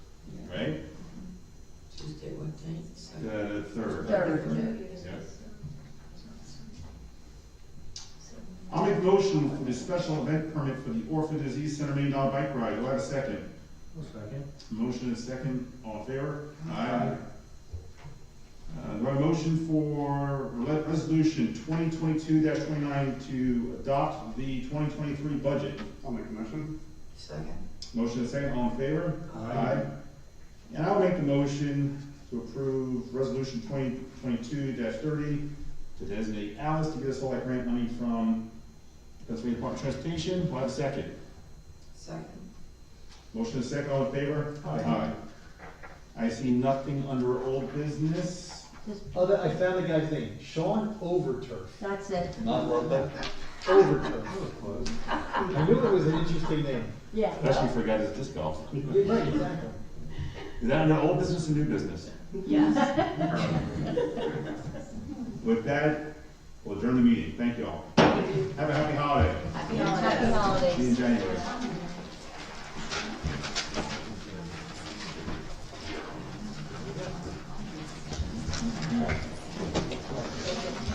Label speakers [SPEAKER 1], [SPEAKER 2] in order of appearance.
[SPEAKER 1] Uh,
[SPEAKER 2] recommend.
[SPEAKER 3] I'll make a motion for the special event permit for the Orphan Disease Center Million Dollar Bike Ride. Do I have a second?
[SPEAKER 2] second.
[SPEAKER 3] Motion and second, all in favor? Aye. Uh, do I have a motion for re- resolution twenty twenty-two twenty-nine to adopt the twenty twenty-three budget?
[SPEAKER 1] I'll make a motion.
[SPEAKER 4] Second.
[SPEAKER 3] Motion and second, all in favor?
[SPEAKER 2] Aye.
[SPEAKER 3] And I'll make the motion to approve resolution twenty twenty-two thirty to designate Alice to get us all that grant money from Pennsylvania Department of Transportation. Do I have a second?
[SPEAKER 4] Second.
[SPEAKER 3] Motion is second, all in favor?
[SPEAKER 2] Aye.
[SPEAKER 3] I see nothing under old business.
[SPEAKER 2] Oh, that, I found the guy's name, Sean Overturf,
[SPEAKER 5] That's it,
[SPEAKER 2] not Lubbock, Overturf. I knew it was an interesting name.
[SPEAKER 5] yeah.
[SPEAKER 3] Especially for a guy that's disc golf.
[SPEAKER 2] Right, exactly.
[SPEAKER 3] Is that under old business or new business?
[SPEAKER 5] Yes.
[SPEAKER 3] With that, we'll adjourn the meeting. Thank you all. Have a happy holiday.
[SPEAKER 5] Happy holidays.
[SPEAKER 3] See you in January.